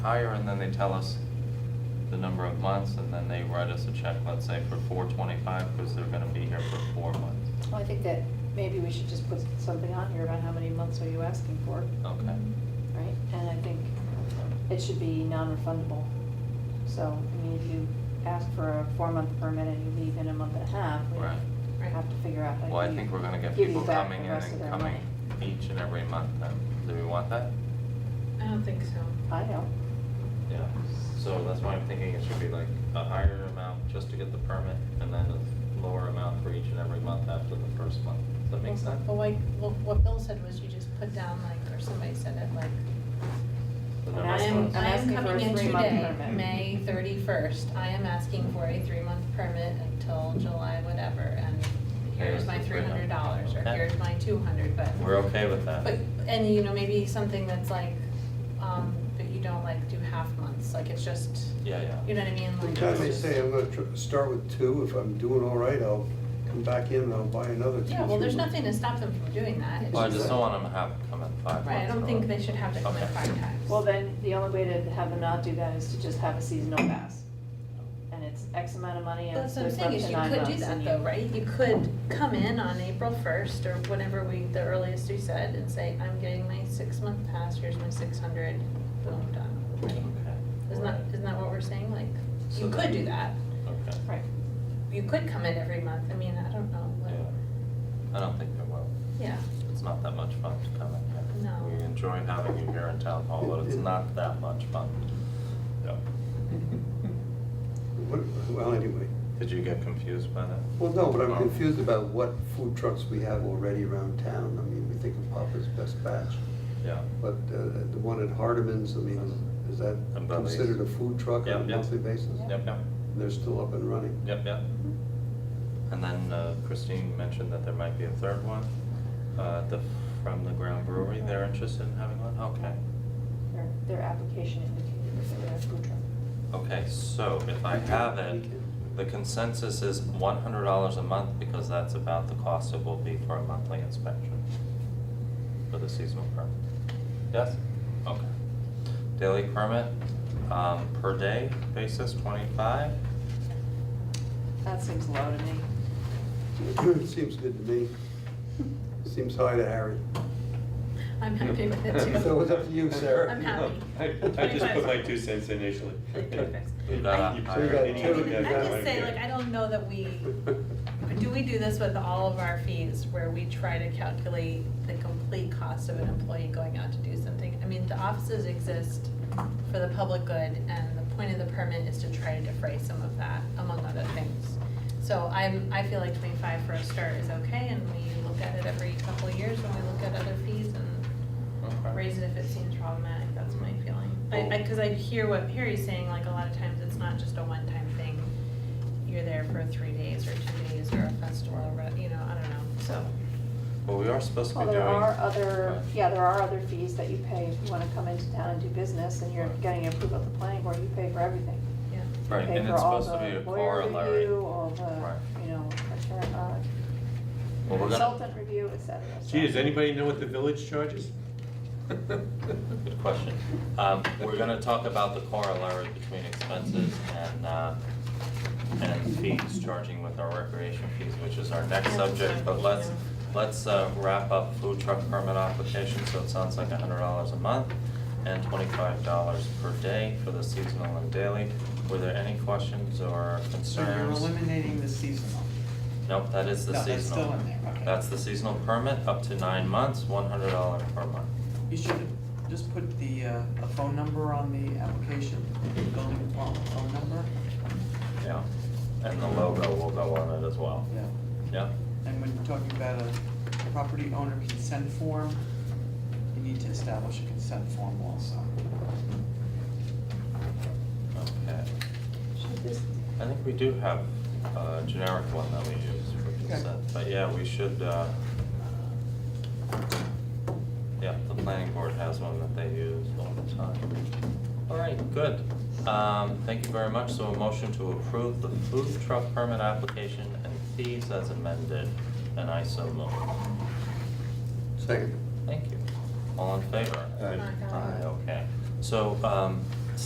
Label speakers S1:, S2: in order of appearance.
S1: higher, and then they tell us the number of months, and then they write us a check, let's say, for four twenty-five, because they're gonna be here for four months.
S2: Well, I think that maybe we should just put something on here about how many months are you asking for,
S1: Okay.
S2: right? And I think it should be non-refundable. So, I mean, if you ask for a four-month permit and you leave in a month and a half,
S1: Right.
S2: we have to figure out how to.
S1: Well, I think we're gonna get
S2: give you
S1: people
S2: back
S1: coming
S2: the
S1: in
S2: rest of
S1: and
S2: their
S1: coming
S2: money.
S1: each and every month, then, do we want that?
S3: I don't think so.
S2: I know,
S1: Yeah, so that's why I'm thinking it should be like a higher amount just to get the permit, and then a lower amount for each and every month after the first month. Does that make sense?
S3: But like, what, what Bill said was you just put down like, or somebody said it like,
S1: The number
S2: I'm
S1: of
S3: I am,
S1: months.
S2: I'm
S3: I am
S2: asking for a
S3: coming in
S2: three-month
S3: today,
S2: permit.
S3: May thirty-first, I am asking for a three-month permit until July whatever, and
S1: Here's
S3: here's
S1: the
S3: my three
S1: three-month.
S3: hundred dollars, or
S1: Okay.
S3: here's my two hundred, but.
S1: We're okay with that.
S3: But, and you know, maybe something that's like, um, that you don't like do half months, like it's just,
S1: Yeah, yeah.
S3: you know what I mean, like.
S4: Because they
S3: it's just-
S4: say I'm gonna tr- start with two, if I'm doing all right, I'll come back in and I'll buy another two.
S3: Yeah, well, there's
S4: three.
S3: nothing to stop them from doing that, it's
S1: Well, I
S3: just,
S1: just don't want them to have come in five months.
S3: right, I don't think they should have to come in
S1: Okay.
S3: five times.
S2: well, then, the only way to have them not do that is to just have a seasonal pass. And it's X amount of money and
S3: That's
S2: it's
S3: what I'm
S2: good for up
S3: saying, is
S2: to
S3: you
S2: nine
S3: could do
S2: months.
S3: that
S2: and
S3: though,
S2: you-
S3: right? You could come in on April first or whenever we, the earliest we said, and say, I'm getting my six-month pass, here's my six hundred, boom, done. with the money."
S1: Okay.
S3: Isn't that, isn't that what we're saying? Like,
S1: So
S3: you could
S1: then-
S3: do that.
S1: Okay.
S2: Right,
S3: You could come in every month, I mean, I don't know, what-
S1: Yeah. I don't think they will.
S3: yeah.
S1: It's not that much fun to come in here.
S3: No.
S1: We enjoy having you here in town hall, but it's not that much fun. Yeah.
S4: What- Well, anyway,
S1: Did you get confused by that?
S4: well, no, but
S1: Oh.
S4: I'm confused about what food trucks we have already around town. I mean, we think of Papa's Best Batch,
S1: Yeah.
S4: but uh, the one at Hardeman's, I mean, is- is that
S1: And Bubby's.
S4: considered a food truck
S1: Yeah,
S4: on a
S1: yeah.
S4: monthly basis?
S1: Yep, yep,
S4: They're still up and running.
S1: yep, yep. And then uh, Christine mentioned that there might be a third one, uh, the, from the Ground Brewery. They're interested in having one? Okay.
S2: their, their application indicated that they were a food truck.
S1: Okay, so if I have it, the consensus is one hundred dollars a month because that's about the cost it will be for a monthly inspection for the seasonal permit. Yes? Okay. Daily permit, um, per day basis, twenty-five?
S2: That seems low to me.
S4: Seems good to me. Seems high to Harry.
S3: I'm happy with it too.
S4: So it's up to you, Sarah.
S3: I'm happy.
S5: I I just put my two cents in initially.
S3: Like, thanks.
S1: You got
S5: You
S1: a
S5: put
S1: higher-
S5: it
S3: I
S5: in,
S4: Yeah,
S3: mean, I
S5: you got
S3: just
S5: it.
S3: say, like, I don't know that we, do we do this with all of our fees, where we try to calculate the complete cost of an employee going out to do something? I mean, the offices exist for the public good, and the point of the permit is to try to defray some of that, among other things. So I'm, I feel like twenty-five for a start is okay, and we look at it every couple of years when we look at other fees and
S1: Okay.
S3: raise it if it seems problematic, that's my feeling. I, I, cause I hear what Perry's saying, like, a lot of times it's not just a one-time thing. You're there for three days or two days or a festival, or, you know, I don't know, so.
S1: Well, we are supposed to be
S2: Well,
S1: doing.
S2: there are other,
S1: Right.
S2: yeah, there are other fees that you pay if you wanna come into town and do business and you're
S1: Right.
S2: getting approval at the planning board, you pay for everything.
S3: Yeah.
S2: You
S1: Right,
S2: pay
S1: and
S2: for
S1: it's
S2: all
S1: supposed to be a
S2: the lawyer
S1: corollary.
S2: review, All
S1: Right.
S2: the, you know, attorney- uh,
S1: Well, we're gonna,
S2: consultant review, et cetera. so.
S5: Gee, does anybody know what the village charges?
S1: good question. Um, we're gonna talk about the corollary between expenses and, uh, and fees, charging with our recreation fees, which is our next
S3: Yeah,
S1: subject, but
S3: exactly,
S1: let's,
S3: yeah.
S1: let's, uh, wrap up food truck permit application, so it sounds like hundred dollars a month and twenty-five dollars per day for the seasonal and daily. Were there any questions or
S6: So you're
S1: concerns?
S6: eliminating the seasonal.
S1: Nope, that is the
S6: No,
S1: seasonal.
S6: that's still in there, okay.
S1: That's the seasonal permit, up to nine months, one hundred dollar per month.
S6: You should have just put the, uh, a phone number on the application, building department phone number.
S1: Yeah, and the logo will go on it as well.
S6: Yeah.
S1: Yeah,
S6: And when you're talking about a property owner consent form, you need to establish a consent form also.
S1: okay.
S2: Should this,
S1: I think we do have a generic one that we use for
S6: Okay.
S1: consent, but yeah, we should, uh, yeah, the planning board has one that they use all the time. All right, good. Um, thank you very much. So a motion to approve the food truck permit application and fees as amended, and I so move.
S4: Second.
S1: Thank you. All in favor?
S4: Aye.
S3: Aye.
S1: Okay. So, um,